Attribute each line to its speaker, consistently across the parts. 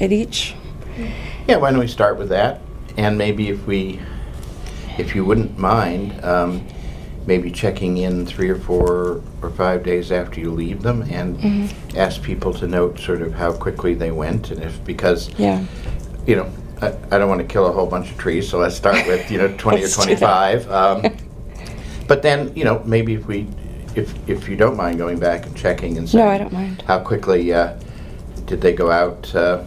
Speaker 1: at each?
Speaker 2: Yeah, why don't we start with that? And maybe if we, if you wouldn't mind, um, maybe checking in three or four or five days after you leave them and
Speaker 1: Mm-hmm.
Speaker 2: ask people to note sort of how quickly they went and if, because,
Speaker 1: Yeah.
Speaker 2: you know, I, I don't want to kill a whole bunch of trees, so let's start with, you know, 20 or
Speaker 1: Let's do that.
Speaker 2: 25. Um, but then, you know, maybe if we, if, if you don't mind going back and checking and saying,
Speaker 1: No, I don't mind.
Speaker 2: how quickly uh, did they go out? Uh,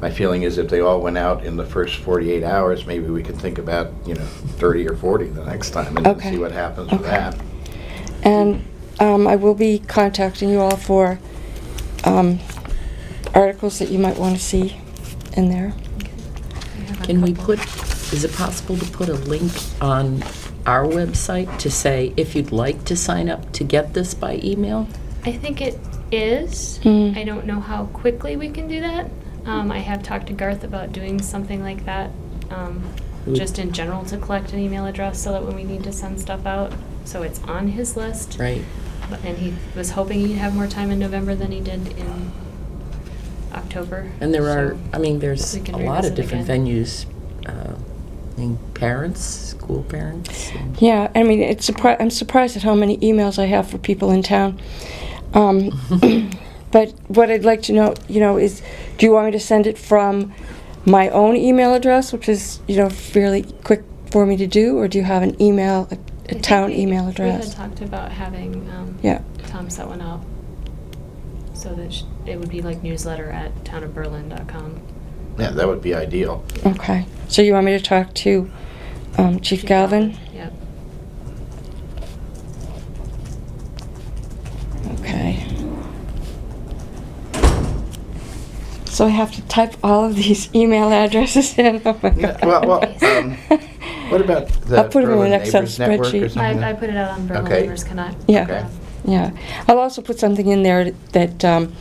Speaker 2: my feeling is if they all went out in the first 48 hours, maybe we could think about, you know, 30 or 40 the next time and
Speaker 1: Okay.
Speaker 2: see what happens with
Speaker 1: Okay.
Speaker 2: that.
Speaker 1: And um, I will be contacting you all for um, articles that you might want to see in there.
Speaker 3: Can we put, is it possible to put a link on our website to say, if you'd like to sign up to get this by email?
Speaker 4: I think it is.
Speaker 1: Mm.
Speaker 4: I don't know how quickly we can do that. Um, I have talked to Garth about doing something like that, um,
Speaker 3: Mm.
Speaker 4: just in general to collect an email address so that when we need to send stuff out, so it's on his list.
Speaker 3: Right.
Speaker 4: But- And he was hoping he'd have more time in November than he did in October.
Speaker 3: And there are,
Speaker 4: so
Speaker 3: I mean, there's
Speaker 4: we can
Speaker 3: a lot
Speaker 4: revisit
Speaker 3: of different
Speaker 4: again.
Speaker 3: venues, uh, I mean, parents, school parents. and-
Speaker 1: Yeah, I mean, it's surpri- I'm surprised at how many emails I have for people in town. Um, but what I'd like to know, you know, is do you want me to send it from my own email address, which is, you know, fairly quick for me to do, or do you have an email, a,
Speaker 4: I
Speaker 1: a
Speaker 4: think
Speaker 1: town
Speaker 4: we-
Speaker 1: email
Speaker 4: We had
Speaker 1: address?
Speaker 4: talked about having um,
Speaker 1: Yeah.
Speaker 4: Tom set one up so that sh- it would be like newsletter at townofberlin.com.
Speaker 2: Yeah, that would be ideal.
Speaker 1: Okay. So you want me to talk to um, Chief Galvin?
Speaker 4: Yep.
Speaker 1: Okay. So I have to type all of these email addresses in. Oh my
Speaker 2: Yeah,
Speaker 1: God.
Speaker 2: well, well, um, What about the
Speaker 1: I'll put 'em in
Speaker 2: Berlin
Speaker 1: an Excel
Speaker 2: Neighbors Network or
Speaker 1: spreadsheet.
Speaker 2: something
Speaker 4: I, I
Speaker 2: like-
Speaker 4: put it out on Berlin
Speaker 2: Okay.
Speaker 4: Neighbors Connect.
Speaker 1: Yeah.
Speaker 2: Okay.
Speaker 1: Yeah, I'll also put something in there that, um,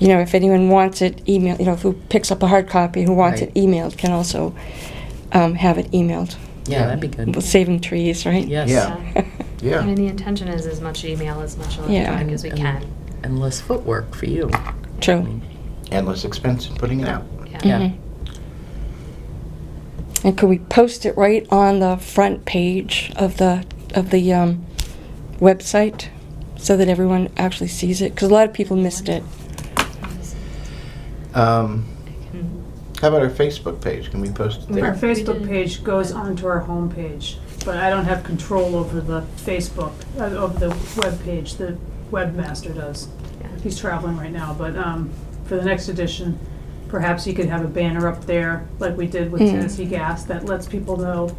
Speaker 1: you know, if anyone wants it email, you know, who picks up a hard copy, who wants
Speaker 3: Right.
Speaker 1: it emailed, can also um, have it emailed.
Speaker 3: Yeah, that'd be
Speaker 1: We're
Speaker 3: good.
Speaker 1: Saving trees, right?
Speaker 3: Yes.
Speaker 2: Yeah.
Speaker 4: I mean,
Speaker 2: Yeah.
Speaker 4: the intention is as much email, as much electronic
Speaker 1: Yeah.
Speaker 4: as we
Speaker 3: And-
Speaker 4: can.
Speaker 3: And less footwork for you. I
Speaker 1: True.
Speaker 3: mean,
Speaker 2: And less expense in putting it out.
Speaker 4: Yeah.
Speaker 3: Yeah.
Speaker 1: Mhm. And could we post it right on the front page of the, of the um, website so that everyone actually sees it? Because a lot of people missed it.
Speaker 2: Um,
Speaker 4: Mm.
Speaker 2: how about our Facebook page? Can we post it
Speaker 4: Sure.
Speaker 5: Our
Speaker 2: there?
Speaker 4: We
Speaker 5: Facebook
Speaker 4: did.
Speaker 5: page goes onto our homepage, but I don't have control over the Facebook, uh, of the web page. The webmaster does.
Speaker 4: Yeah.
Speaker 5: He's traveling right now, but um, for the next edition, perhaps he could have a banner up there, like we did with
Speaker 1: Mm.
Speaker 5: Tennessee Gas, that lets people know,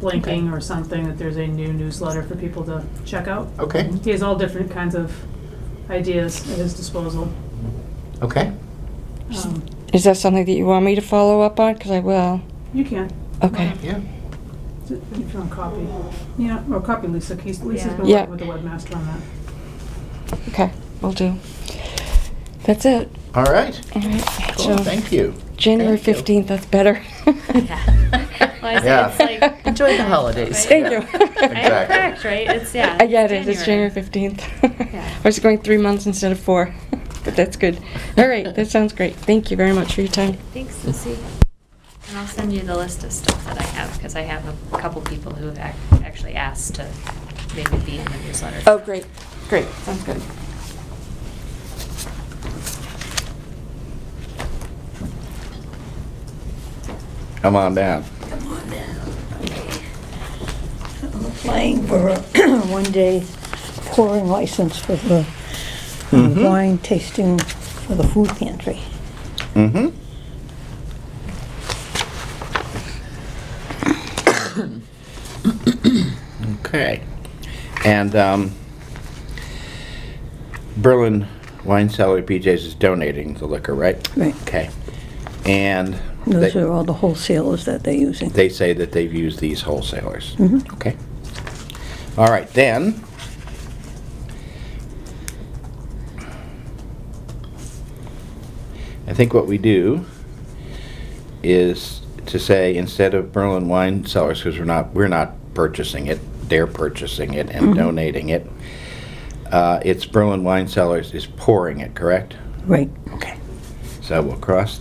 Speaker 5: blinking or something, that there's a new newsletter for people to check out.
Speaker 2: Okay,
Speaker 5: He has all different kinds of ideas at his disposal.
Speaker 2: okay.
Speaker 5: Um,
Speaker 1: Is that something that you want me to follow up on? Because I will.
Speaker 5: You can,
Speaker 1: Okay.
Speaker 2: Yeah.
Speaker 5: if you want a copy. Yeah, or copy Lisa, 'cause Lisa's been
Speaker 1: Yeah.
Speaker 5: working with the webmaster on that.
Speaker 1: Okay, will do. That's it.
Speaker 2: All right.
Speaker 1: All right.
Speaker 2: Cool.
Speaker 1: So
Speaker 2: Thank you.
Speaker 1: January
Speaker 3: Thank you.
Speaker 1: 15th, that's better.
Speaker 4: Well, I say
Speaker 2: Yeah.
Speaker 4: it's like-
Speaker 3: Enjoy the holidays.
Speaker 1: Thank you.
Speaker 4: I am correct, right? It's, yeah.
Speaker 1: I get it. It's January 15th.
Speaker 4: Yeah.
Speaker 1: I was going three months instead of four, but that's good. All right, that sounds great. Thank you very much for your time.
Speaker 4: Thanks, Lucy. And I'll send you the list of stuff that I have, because I have a couple people who have ac- actually asked to maybe be in the newsletter.
Speaker 1: Oh, great. Great. Sounds good.
Speaker 2: Come on down.
Speaker 6: I'm applying for a one-day pouring license for the
Speaker 2: Mhm.
Speaker 6: wine tasting for the food pantry.
Speaker 2: Mm-hmm. Okay. And um, Berlin Wine Cellar BJ's is donating the liquor, right?
Speaker 6: Right.
Speaker 2: Okay. And
Speaker 6: Those
Speaker 2: they-
Speaker 6: are all the wholesalers that they're using.
Speaker 2: they say that they've used these wholesalers.
Speaker 6: Mhm.
Speaker 2: Okay. All right, then. I think what we do is to say instead of Berlin wine cellars, because we're not we're not purchasing it, they're purchasing it and donating it. Uh, it's Berlin wine cellars is pouring it, correct?
Speaker 6: Right.
Speaker 2: Okay. So we'll cross